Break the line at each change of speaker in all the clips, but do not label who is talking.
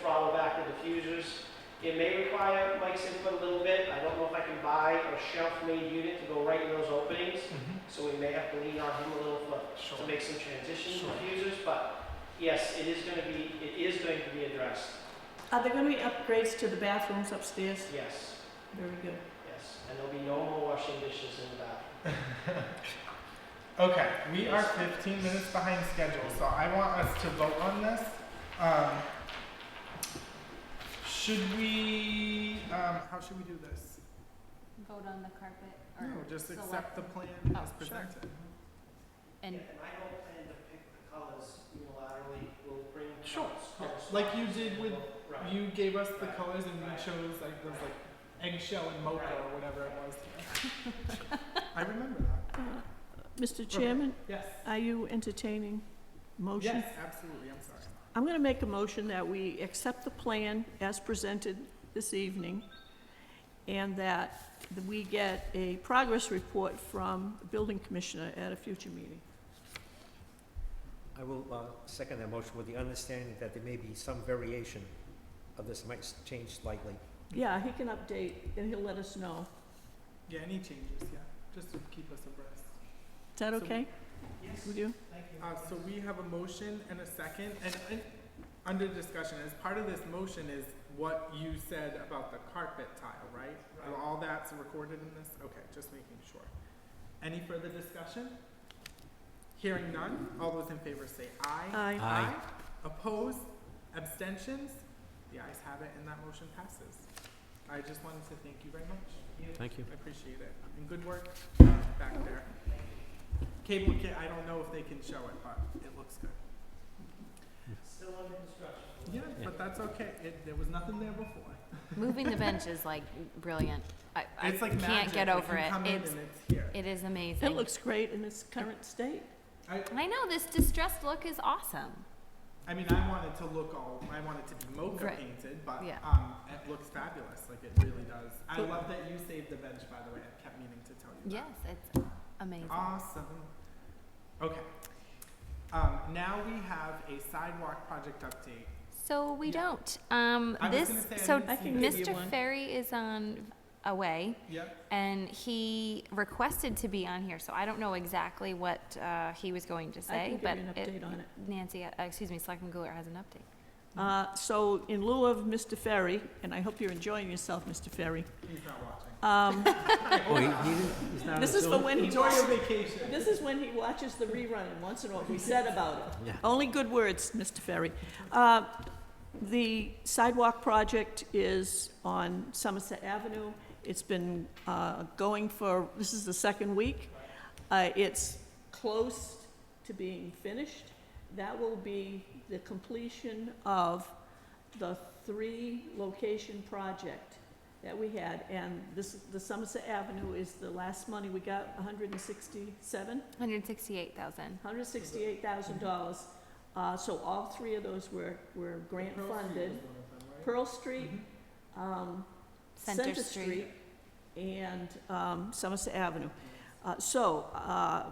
throttle back the diffusers. It may require Mike's input a little bit. I don't know if I can buy a shelf-made unit to go right in those openings,
Mm-hmm.
so we may have to lean on him a little for
Sure.
to make some transition
Sure.
diffusers, but yes, it is gonna be, it is going to be addressed,
Are there going to be upgrades to the bathrooms upstairs?
yes,
Very good.
yes. And there'll be no more washing dishes in the bathroom.
Okay, we are 15 minutes behind schedule, so I want us to vote on this. Um, should we, um, how should we do this?
Vote on the carpet or
No, just accept
select
the plan
Oh,
as
sure.
presented.
And
and
I don't plan to pick the colors unilaterally, we'll bring
Sure.
colors. colors.
Like you did with-
Right.
You gave us the
Right.
colors and we
Right.
chose like those like eggshell and mocha or whatever it was. yeah. I remember that.
Uh, Mr. Chairman,
Yes.
are you entertaining motion?
Yes, absolutely. I'm sorry.
I'm going to make a motion that we accept the plan as presented this evening, and that we get a progress report from the building commissioner at a future meeting.
I will uh, second that motion with the understanding that there may be some variation of this, might s- change slightly.
Yeah, he can update, and he'll let us know.
Yeah, any changes? Yeah, just to keep us abreast.
Is that
So-
okay
Yes,
with you?
thank you.
Uh, so we have a motion and a second, and, and under discussion, as part of this motion is what you said about the carpet tile, right?
Right.
All that's recorded in this? Okay, just making sure. Any further discussion? Hearing none, all those in favor say aye.
Aye.
Aye.
Opposed, abstentions? The ayes have it, and that motion passes. I just wanted to thank you very much.
Thank you.
I appreciate it. And good work uh, back there. Cable, ca- I don't know if they can show it, but it looks good.
Still under construction.
Yeah, but that's okay. It, there was nothing there before.
moving the bench is like brilliant. I, I
It's like
can't
magic.
get
Like,
over
you
it.
come in
It's
and it's here.
it is amazing.
It looks great in its current state.
I,
I know this distressed look is awesome.
I mean, I wanted to look all. I wanted to be mocha
Right.
painted, but
Yeah.
um, it looks fabulous. Like it really does. I
Cool.
love that you saved the bench. By the way, I kept meaning to tell you. that.
Yes, it's amazing.
Awesome. Okay. Um, now we have a sidewalk project update.
So we
Yeah.
don't. Um,
I was
this
gonna say, I
so
didn't
I
see
can
that.
give you
Mr.
one.
Ferry is on away
Yep.
and he requested to be on here. So I don't know exactly what uh, he was going to say,
I
but
can give
it-
you an update on it.
Nancy, uh, excuse me, Selectman Goulart has an update.
Uh, So in lieu of Mr. Ferry, and I hope you're enjoying yourself, Mr. Ferry,
He's not watching.
um,
Oh, he- he didn't- he's not on
this is for
Zoom?
when he,
Enjoy your
wa-
vacation.
this is when he watches the rerun and wants to know what we said about it.
Yeah.
Only good words, Mr. Ferry. Uh, The sidewalk project is on Somerset Avenue. It's been uh, going for, this is the second week. Uh, It's close to being finished. That will be the completion of the three-location project that we had. And this, the Somerset Avenue is the last money we got, 167?
168,000.
hundred sixty-eight thousand dollars. Uh, so all three of those were, were grant
Pearl Street
funded.
was one of them, right?
Pearl Street,
Mhm.
um,
Center
Center
Street.
Street, and, um, Somerset Avenue. Uh, so, uh,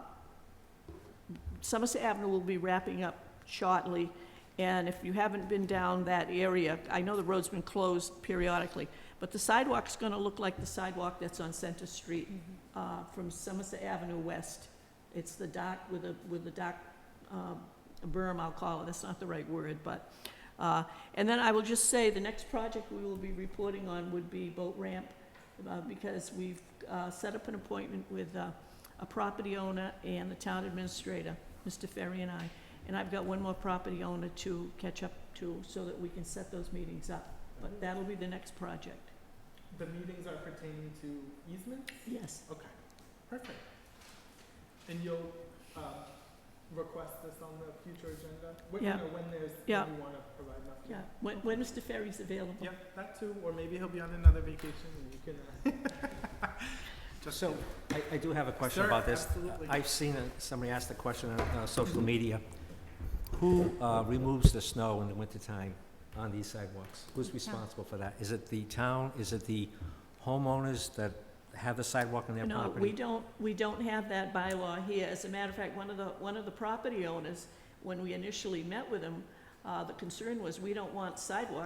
Somerset Avenue will be wrapping up shortly, and if you haven't been down that area, I know the road's been closed periodically, but the sidewalk's gonna look like the sidewalk that's on Center Street
Mhm.
uh, from Somerset Avenue West. It's the dock with a, with a dock um, berm, I'll call it, that's not the right word, but, uh, and then I will just say, the next project we will be reporting on would be boat ramp, uh, because we've uh, set up an appointment with uh, a property owner and the town administrator, Mr. Ferry and I, and I've got one more property owner to catch up to, so that we can set those meetings up, but that'll be the next project.
The meetings are pertaining to easements?
Yes.
Okay, perfect. And you'll, um, request this on the future agenda? When- you
Yeah.
know, When there's,
Yeah.
when you wanna provide an update?
Yeah, when, when Mr. Ferry's available.
Yeah, that too, or maybe he'll be on another vacation and you can, uh,
So, I, I do have a question
Sure,
about this.
absolutely.
I've seen, uh, somebody asked a question on, uh, social media. Who, uh, removes the snow in the wintertime on these sidewalks? Who's responsible for that? Is it the town? Is it the homeowners that have the sidewalk on their
No,
property?
we don't, we don't have that bylaw here. As a matter of fact, one of the, one of the property owners, when we initially met with him, uh, the concern was, we don't want sidewalks